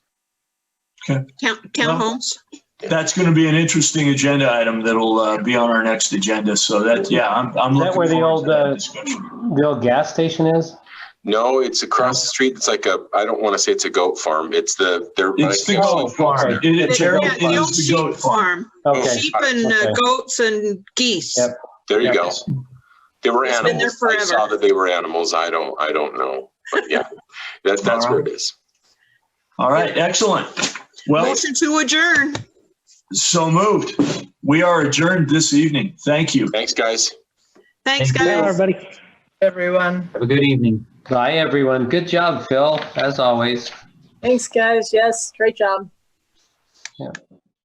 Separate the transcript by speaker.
Speaker 1: Okay.
Speaker 2: Town, townhomes?
Speaker 1: That's going to be an interesting agenda item that'll uh, be on our next agenda. So that, yeah, I'm, I'm
Speaker 3: Is
Speaker 1: looking
Speaker 3: that where the
Speaker 1: forward to
Speaker 3: old,
Speaker 1: that
Speaker 3: uh,
Speaker 1: discussion.
Speaker 3: The old gas station is?
Speaker 4: No, it's across the street. It's like a, I don't want to say it's a goat farm. It's the, they're. I
Speaker 1: It's the
Speaker 4: can't-
Speaker 3: Oh,
Speaker 1: goat farm. It-
Speaker 3: It's
Speaker 1: It
Speaker 3: the
Speaker 1: Gerald,
Speaker 3: goat
Speaker 2: Yeah,
Speaker 1: it
Speaker 2: the old
Speaker 1: is the
Speaker 2: sheep
Speaker 1: goat farm.
Speaker 2: farm,
Speaker 3: Okay,
Speaker 2: sheep and uh,
Speaker 3: Okay.
Speaker 2: goats and geese.
Speaker 3: Yep.
Speaker 4: There you go.
Speaker 1: Yes.
Speaker 4: They were
Speaker 2: It's been there
Speaker 4: animals. I saw
Speaker 2: forever.
Speaker 4: that they were animals. I don't, I don't know. But yeah, that, that's where it is.
Speaker 1: All right, excellent. Well,
Speaker 2: Motion to adjourn.
Speaker 1: so moved. We are adjourned this evening. Thank you.
Speaker 4: Thanks, guys.
Speaker 2: Thanks,
Speaker 5: Thank you,
Speaker 2: guys.
Speaker 5: Everybody,
Speaker 6: everyone.
Speaker 5: have a good evening.
Speaker 3: bye, everyone. Good job, Phil, as always.
Speaker 6: Thanks, guys. Yes, great job.